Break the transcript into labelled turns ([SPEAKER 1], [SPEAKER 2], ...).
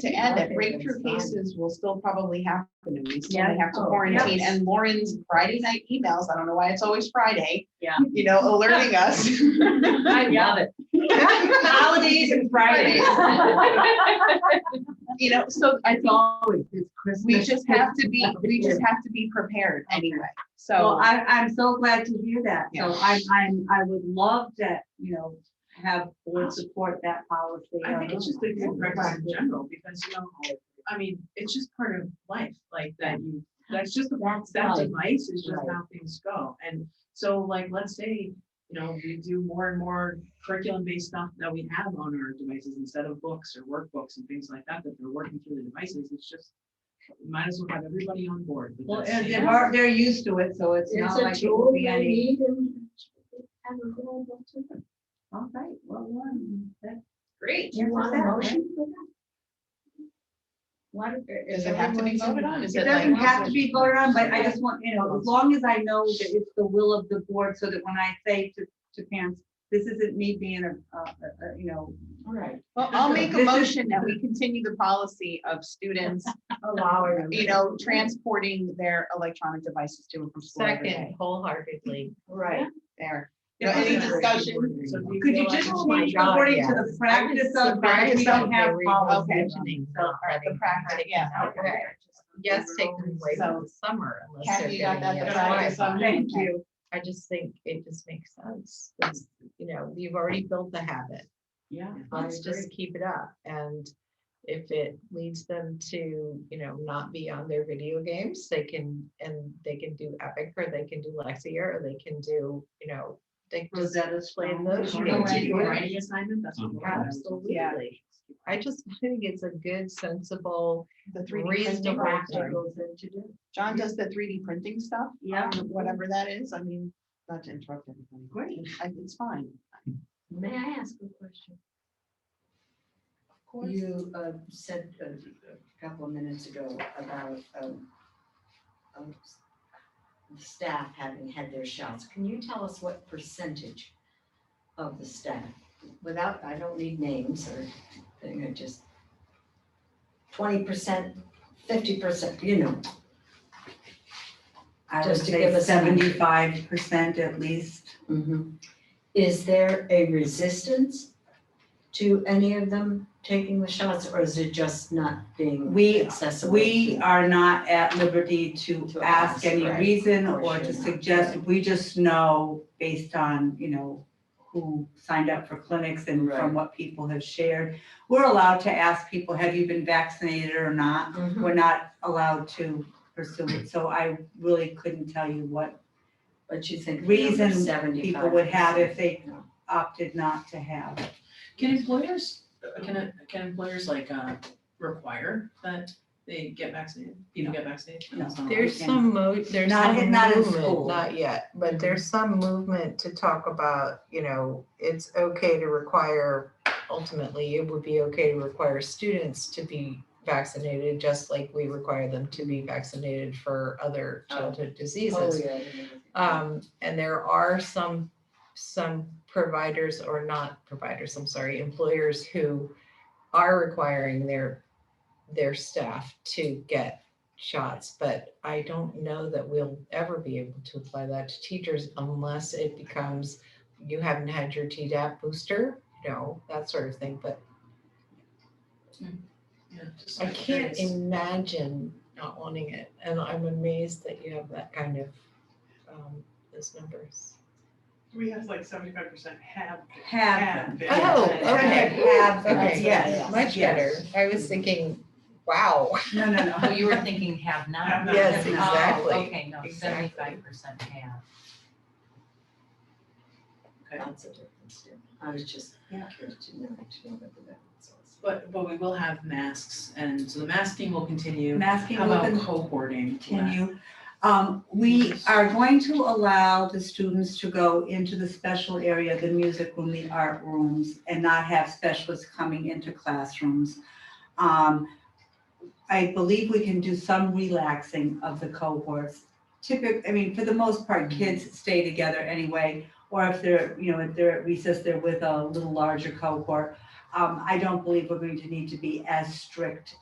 [SPEAKER 1] to add that breakthrough cases will still probably happen and we still may have to
[SPEAKER 2] Yeah. Oh,
[SPEAKER 1] quarantine.
[SPEAKER 2] yes.
[SPEAKER 1] And Lauren's Friday night emails, I don't know why it's always Friday.
[SPEAKER 2] Yeah.
[SPEAKER 1] You know, alerting us.
[SPEAKER 2] I love it. Holidays and Fridays.
[SPEAKER 1] You know, so I think
[SPEAKER 3] always, it's Christmas.
[SPEAKER 1] we just have to be, we just have to be prepared anyway.
[SPEAKER 3] Well,
[SPEAKER 1] So,
[SPEAKER 3] I, I'm so glad to hear that. So
[SPEAKER 1] Yeah.
[SPEAKER 3] I, I'm, I would love to, you know, have board support that policy.
[SPEAKER 4] I think it's just a good practice in
[SPEAKER 3] Yeah.
[SPEAKER 4] general, because you know, I mean, it's just part of life, like that you, that's just,
[SPEAKER 2] That's
[SPEAKER 4] that
[SPEAKER 2] right.
[SPEAKER 4] device is just
[SPEAKER 3] Right.
[SPEAKER 4] how things go. And so like, let's say, you know, we do more and more curriculum-based stuff that we have on our devices instead of books or workbooks and things like that, that they're working through the devices, it's just, might as well have everybody on board. with
[SPEAKER 3] Well,
[SPEAKER 4] this.
[SPEAKER 3] and they're, al- they're used to it, so it's
[SPEAKER 2] It's
[SPEAKER 3] not
[SPEAKER 2] a
[SPEAKER 3] like it will
[SPEAKER 2] tool we
[SPEAKER 3] be any.
[SPEAKER 2] need and. and we're going to do it.
[SPEAKER 3] All right, well, one, that-
[SPEAKER 2] Great.
[SPEAKER 3] Yeah,
[SPEAKER 2] You want a
[SPEAKER 3] that's
[SPEAKER 2] motion for that? What?
[SPEAKER 1] does it have to be voted on? Is
[SPEAKER 3] it
[SPEAKER 1] it
[SPEAKER 3] doesn't
[SPEAKER 1] like?
[SPEAKER 3] have to be voted on, but I just want, you know, as long as I know that it's the will of the board, so that when I say to, to parents, this isn't me being a, a, a- you know,
[SPEAKER 2] Right.
[SPEAKER 1] Well, I'll make a
[SPEAKER 3] This is-
[SPEAKER 1] motion that we continue the policy of students,
[SPEAKER 2] Allowing.
[SPEAKER 1] you know, transporting their electronic devices to and from school every day.
[SPEAKER 5] Second, wholeheartedly.
[SPEAKER 2] Right.
[SPEAKER 1] There.
[SPEAKER 4] Yeah,
[SPEAKER 1] Any
[SPEAKER 4] it's very
[SPEAKER 1] discussion?
[SPEAKER 4] important. So we
[SPEAKER 3] could you
[SPEAKER 4] feel
[SPEAKER 3] just
[SPEAKER 4] like-
[SPEAKER 5] Oh my
[SPEAKER 3] change
[SPEAKER 5] God,
[SPEAKER 3] according to
[SPEAKER 5] yes.
[SPEAKER 3] the practice of, because we don't have
[SPEAKER 1] okay.
[SPEAKER 3] policy.
[SPEAKER 1] The practice, yeah.
[SPEAKER 5] Okay. Yes, take them away
[SPEAKER 1] So-
[SPEAKER 5] from the summer unless they're
[SPEAKER 1] Kathy, you got
[SPEAKER 5] getting
[SPEAKER 1] that,
[SPEAKER 5] it.
[SPEAKER 1] the
[SPEAKER 4] Yeah.
[SPEAKER 1] practice on.
[SPEAKER 3] Thank you.
[SPEAKER 5] I just think it just makes sense. It's, you know, you've already built the habit.
[SPEAKER 4] Yeah.
[SPEAKER 5] Let's just keep it up. And if it leads them to, you know, not be on their video games, they can, and they can do Epic or they can do Lexia or they can do, you know, they can just
[SPEAKER 3] Rosetta
[SPEAKER 5] play
[SPEAKER 3] Stone.
[SPEAKER 5] those.
[SPEAKER 4] Or
[SPEAKER 5] games.
[SPEAKER 1] Right.
[SPEAKER 4] a Writing assignment, that's what. we're having.
[SPEAKER 5] Absolutely. I just think it's a good, sensible,
[SPEAKER 1] The three D printing.
[SPEAKER 5] reasonable
[SPEAKER 1] practice.
[SPEAKER 5] thing.
[SPEAKER 1] John does the three D printing stuff.
[SPEAKER 3] Yeah.
[SPEAKER 1] um, Whatever that is, I mean, not to interrupt everybody. Great. It's fine.
[SPEAKER 2] May I ask a question?
[SPEAKER 6] You uh, said a a couple of minutes ago about um, um, s- the staff having had their shots. Can you tell us what percentage of the staff? Without, I don't need names or thing, I just twenty percent, fifty percent, you know.
[SPEAKER 3] I would
[SPEAKER 6] Just to give
[SPEAKER 3] say
[SPEAKER 6] us an idea.
[SPEAKER 3] seventy-five percent at least.
[SPEAKER 6] Mhm. Is there a resistance to any of them taking the shots or is it just not being
[SPEAKER 3] We-
[SPEAKER 6] accessible?
[SPEAKER 3] We are not at liberty to
[SPEAKER 6] To
[SPEAKER 3] ask
[SPEAKER 6] ask,
[SPEAKER 3] any
[SPEAKER 6] right,
[SPEAKER 3] reason
[SPEAKER 6] or
[SPEAKER 3] or to
[SPEAKER 6] should not,
[SPEAKER 3] suggest, we just know based on, you know, who signed up for clinics and from
[SPEAKER 6] Right.
[SPEAKER 3] what people have shared. We're allowed to ask people, have you been vaccinated or not?
[SPEAKER 6] Mhm.
[SPEAKER 3] We're not allowed to pursue it, so I really couldn't tell you what
[SPEAKER 6] But you think.
[SPEAKER 3] Reason
[SPEAKER 6] seventy
[SPEAKER 3] people would have if they Oh, opted not to have.
[SPEAKER 4] Can employers, uh, can, uh, can employers like, uh, require that they get vaccinated, people get vaccinated?
[SPEAKER 3] No.
[SPEAKER 4] That's not-
[SPEAKER 5] There's
[SPEAKER 3] Yeah.
[SPEAKER 5] some mo, there's
[SPEAKER 3] Not
[SPEAKER 5] some
[SPEAKER 3] in- not in
[SPEAKER 5] movement,
[SPEAKER 3] school. Mm-hmm.
[SPEAKER 5] not yet, but there's some movement to talk about, you know, it's okay to require, ultimately, it would be okay to require students to be vaccinated, just like we require them to be vaccinated for other childhood
[SPEAKER 6] Oh,
[SPEAKER 5] diseases.
[SPEAKER 6] yeah.
[SPEAKER 5] Um, and there are some, some providers or not providers, I'm sorry, employers who are requiring their, their staff to get shots, but I don't know that we'll ever be able to apply that to teachers unless it becomes, you haven't had your TDAP booster, you know, that sort of thing, but
[SPEAKER 4] Yeah, just
[SPEAKER 5] I
[SPEAKER 4] like
[SPEAKER 5] can't
[SPEAKER 4] curious.
[SPEAKER 5] imagine not wanting it, and I'm amazed that you have that kind of, um, those numbers.
[SPEAKER 7] We have like seventy-five percent have.
[SPEAKER 3] Have.
[SPEAKER 7] been.
[SPEAKER 5] Oh, okay.
[SPEAKER 3] Have,
[SPEAKER 5] Okay,
[SPEAKER 3] yes.
[SPEAKER 5] yes, much better. I was thinking, wow.
[SPEAKER 3] No, no, no.
[SPEAKER 8] Oh, you were thinking have
[SPEAKER 7] Have
[SPEAKER 8] not.
[SPEAKER 7] not.
[SPEAKER 5] Yes,
[SPEAKER 8] Oh,
[SPEAKER 5] exactly,
[SPEAKER 8] Okay, no,
[SPEAKER 5] exactly.
[SPEAKER 8] seventy-five percent have.
[SPEAKER 6] That's a difference, yeah. I was just curious to know, to know what the balance was.
[SPEAKER 4] But, but we will have masks, and so the masking will continue.
[SPEAKER 3] Masking
[SPEAKER 4] How
[SPEAKER 3] with
[SPEAKER 4] about
[SPEAKER 3] an
[SPEAKER 4] cohorting?
[SPEAKER 3] continue. Um, we are going to allow the students to go into the special area, the music room, the art rooms, and not have specialists coming into classrooms. Um, I believe we can do some relaxing of the cohorts. Typic, I mean, for the most part, kids stay together anyway, or if they're, you know, if they're at recess, they're with a little larger cohort. um, I don't believe we're going to need to be as strict